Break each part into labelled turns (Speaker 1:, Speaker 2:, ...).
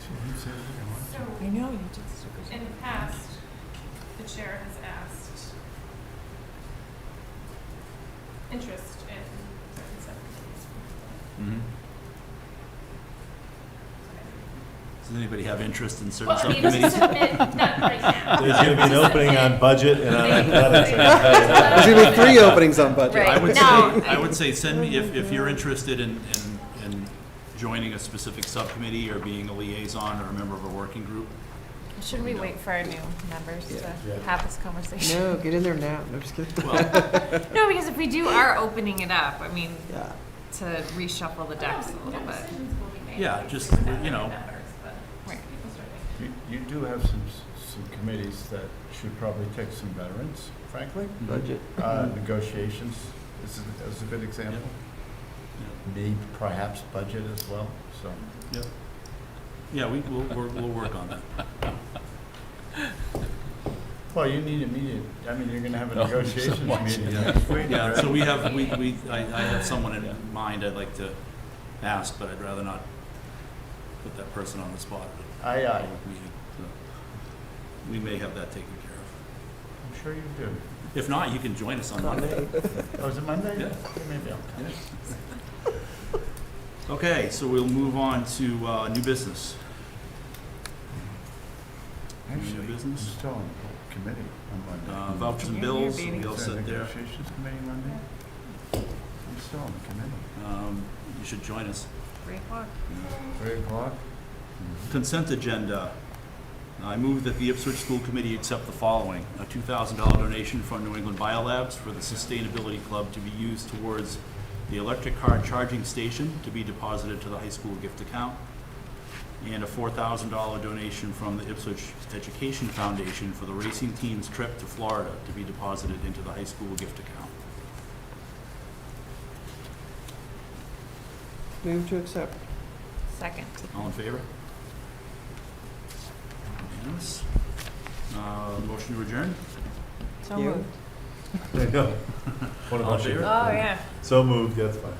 Speaker 1: So,
Speaker 2: I know, you just took
Speaker 1: in the past, the chair has asked interest in certain subcommittees.
Speaker 3: Mm-hmm. Does anybody have interest in certain
Speaker 1: Well, I mean, to
Speaker 3: subcommittees?
Speaker 1: submit, not right now.
Speaker 4: There's gonna be an opening on budget and on athletics.
Speaker 5: There's
Speaker 1: There's
Speaker 5: gonna be three openings on budget.
Speaker 3: I
Speaker 6: Right.
Speaker 3: would say,
Speaker 6: No.
Speaker 3: I would say, send me, if, if you're interested in, in, in joining a specific subcommittee or being a liaison or a member of a working group,
Speaker 6: Shouldn't we wait for our new members
Speaker 4: Yeah.
Speaker 6: to have this conversation?
Speaker 5: No, get in there now. No, I'm just kidding.
Speaker 3: well,
Speaker 6: No, because if we do are opening it up, I mean,
Speaker 5: Yeah.
Speaker 6: to reshuffle the decks a little bit.
Speaker 3: Yeah, just, you know.
Speaker 6: Right.
Speaker 4: You- You do have some, s- some committees that should probably take some veterans, frankly.
Speaker 5: Budget.
Speaker 4: Uh, Negotiations is, a- is a good example. Maybe perhaps budget as well, so.
Speaker 3: yeah, we, we'll, we'll, we'll work on that.
Speaker 4: Well, you need immediate, I mean, you're gonna have a negotiations meeting next week.
Speaker 3: Yeah, so
Speaker 4: right?
Speaker 3: we have, we, we, I, I have someone in mind I'd like to ask, but I'd rather not put that person on the spot at
Speaker 4: Aye,
Speaker 3: a
Speaker 4: aye,
Speaker 3: public meeting. so We may have that taken care of.
Speaker 4: I'm sure you do.
Speaker 3: If not, you can join us on Monday.
Speaker 4: Oh, is it Monday?
Speaker 3: Yeah.
Speaker 4: Maybe I'll come.
Speaker 3: Okay, so we'll move on to, uh, new business.
Speaker 4: Actually, I'm
Speaker 3: business?
Speaker 4: still on the committee on Monday.
Speaker 3: Uh, vouchers and
Speaker 6: Yeah, you're
Speaker 3: bills,
Speaker 6: beating.
Speaker 3: we all
Speaker 4: Is there a
Speaker 3: sit there.
Speaker 4: Negotiations committee Monday? I'm still on the committee.
Speaker 3: Um, you should join us.
Speaker 6: Three o'clock.
Speaker 4: Three o'clock?
Speaker 3: Consent agenda. I move that the Ipswich School Committee accept the following: a two thousand dollar donation from New England Biolabs for the Sustainability Club to be used towards the electric car charging station to be deposited to the high school gift account, and a four thousand dollar donation from the Ipswich Education Foundation for the racing team's trip to Florida to be deposited into the high school gift account.
Speaker 5: Move to accept.
Speaker 6: Second.
Speaker 3: All in favor? Unanimous. Uh, motion to adjourn?
Speaker 6: So
Speaker 5: You?
Speaker 6: moved.
Speaker 4: There you go. What a
Speaker 3: All in
Speaker 4: bunch
Speaker 3: favor?
Speaker 4: of.
Speaker 6: Oh, yeah.
Speaker 4: So moved, that's fine.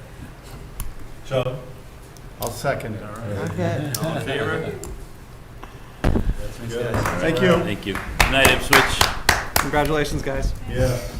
Speaker 4: Joe? I'll second it.
Speaker 5: Okay.
Speaker 3: All in favor?
Speaker 4: Thank you.
Speaker 3: Thank you. Good night, Ipswich.
Speaker 5: Congratulations, guys.
Speaker 4: Yeah.